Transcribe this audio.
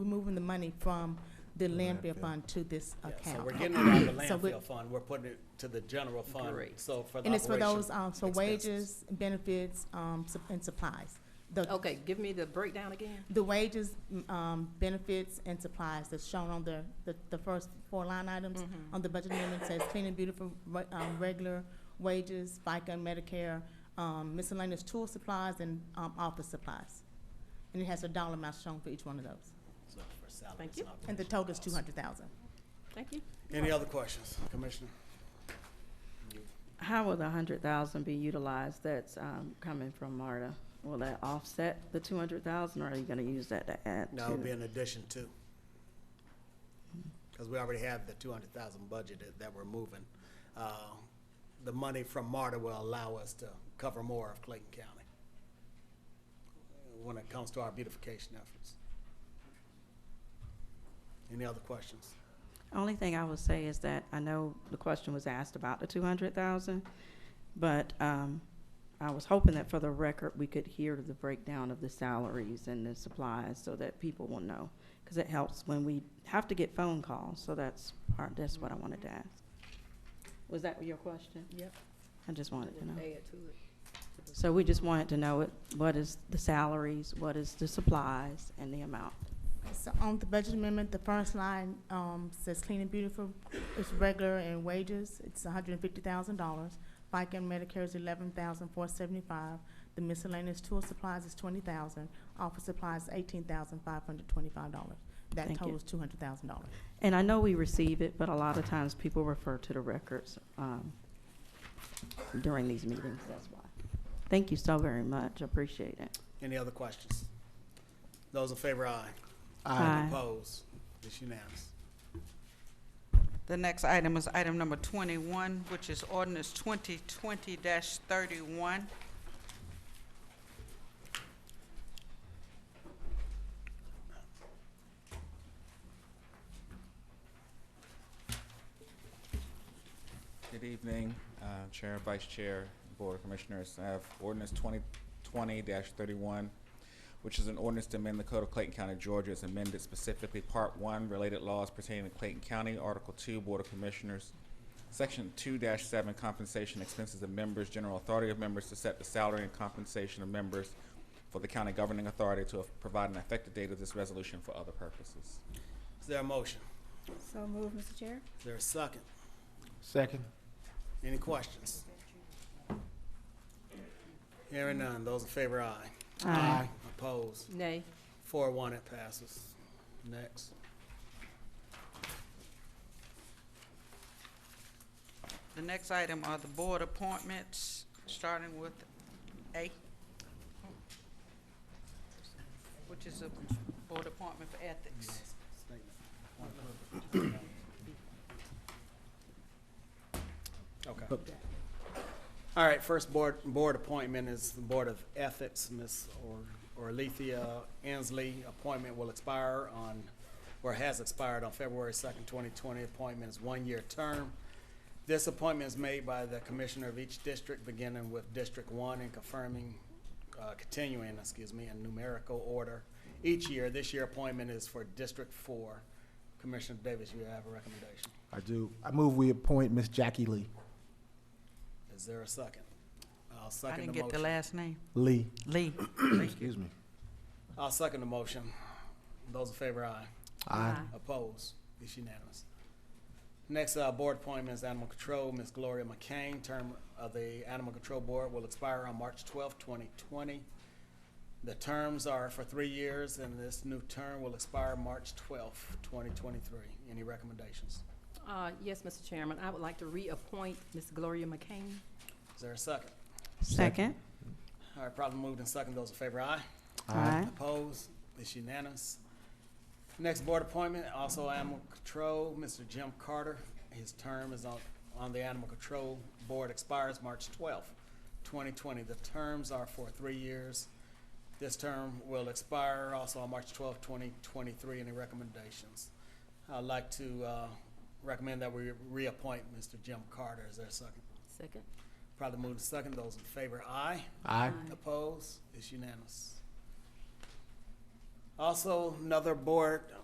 we're moving the money from the landfill landfill. fund to this Yeah, So we're account. getting it out of the So we- landfill fund, we're putting it to the general fund, Great. so for the And it's for those, operation um, so expenses. wages, benefits, um, sup- and supplies. The, Okay, give me the breakdown again. the wages, m- um, benefits and supplies that's shown on the, the, the first four line items on the budget amendment says clean and beautiful, re- um, regular wages, FICA and Medicare, um, miscellaneous tool supplies and, um, office supplies. And it has a dollar amount shown for each one of those. So for salaries Thank you. And the operational total is two costs. hundred thousand. Thank you. Any other questions, Commissioner? How will the hundred thousand be utilized that's um, coming from MARTA? Will that offset the two hundred thousand, or are you gonna use that to add No, it'll be to? an addition too. Mm-hmm. Because we already have the two hundred thousand budgeted that we're moving. Uh, The money from MARTA will allow us to cover more of Clayton County when it comes to our beautification efforts. Any other questions? Only thing I would say is that I know the question was asked about the two hundred thousand, but um, I was hoping that for the record, we could hear the breakdown of the salaries and the supplies so that people will know. Because it helps when we have to get phone calls, so that's part, that's what I wanted to ask. Was that your question? Yep. I just wanted to know. Add to it. So we just wanted to know it, what is the salaries, what is the supplies, and the amount. So on the budget amendment, the first line, um, says clean and beautiful, it's regular and wages, it's hundred and fifty thousand dollars. FICA and Medicare is eleven thousand four seventy-five, the miscellaneous tool supplies is twenty thousand, office supplies eighteen thousand five hundred twenty-five dollars. That Thank you. totals two hundred thousand dollars. And I know we receive it, but a lot of times people refer to the records um, during these meetings, that's why. Thank you so very much, appreciate it. Any other questions? Those in favor, aye. Aye. Opposed? It's unanimous. The next item is item number 21, which is ordinance 2020-31. Good evening, uh, Chair, Vice Chair, Board of Commissioners. I have ordinance twenty twenty thirty-one, which is an ordinance to amend the Code of Clayton County, Georgia, as amended specifically Part One, related laws pertaining to Clayton County, Article Two, Board of Commissioners, Section two seven, compensation expenses of members, general authority of members to set the salary and compensation of members for the county governing authority to provide an effective date of this resolution for other purposes. Is there a motion? So moved, Mr. Chair. Is there a second? Second. Any questions? Hearing none, those in favor, aye. Aye. Opposed? Nay. Four one, it passes. Next. The next item are the board appointments, starting with A, which is a board appointment for ethics. Okay. All right, first board, board appointment is the Board of Ethics, Ms. Or- Orlethea Ansley. Appointment will expire on, or has expired on February second, twenty twenty. Appointment is one-year term. This appointment is made by the commissioner of each district, beginning with District One and confirming, uh, continuing, excuse me, in numerical order each year. This year appointment is for District Four. Commissioner Davis, you have a recommendation. I do. I move we appoint Miss Jackie Lee. Is there a second? I'll I second didn't the get the motion. last name. Lee. Lee. Excuse me. I'll second the motion. Those in favor, aye. Aye. Opposed? It's unanimous. Next, uh, board appointment is Animal Control, Ms. Gloria McCain. Term of the Animal Control Board will expire on March twelfth, twenty twenty. The terms are for three years, and this new term will expire March twelfth, twenty twenty-three. Any recommendations? Uh, yes, Mr. Chairman, I would like to reappoint Ms. Gloria McCain. Is there a second? Second. All right, probably moved and second. Those in favor, aye. Aye. Opposed? It's unanimous. Next board appointment, also Animal Control, Mr. Jim Carter. His term is on, on the Animal Control Board expires March twelfth, twenty twenty. The terms are for three years. This term will expire also on March twelfth, twenty twenty-three. Any recommendations? I'd like to, uh, recommend that we reappoint Mr. Jim Carter. Is there a second? Second. Probably moved to second. Those in favor, aye. Aye. Opposed? It's unanimous. Uh, Also, another board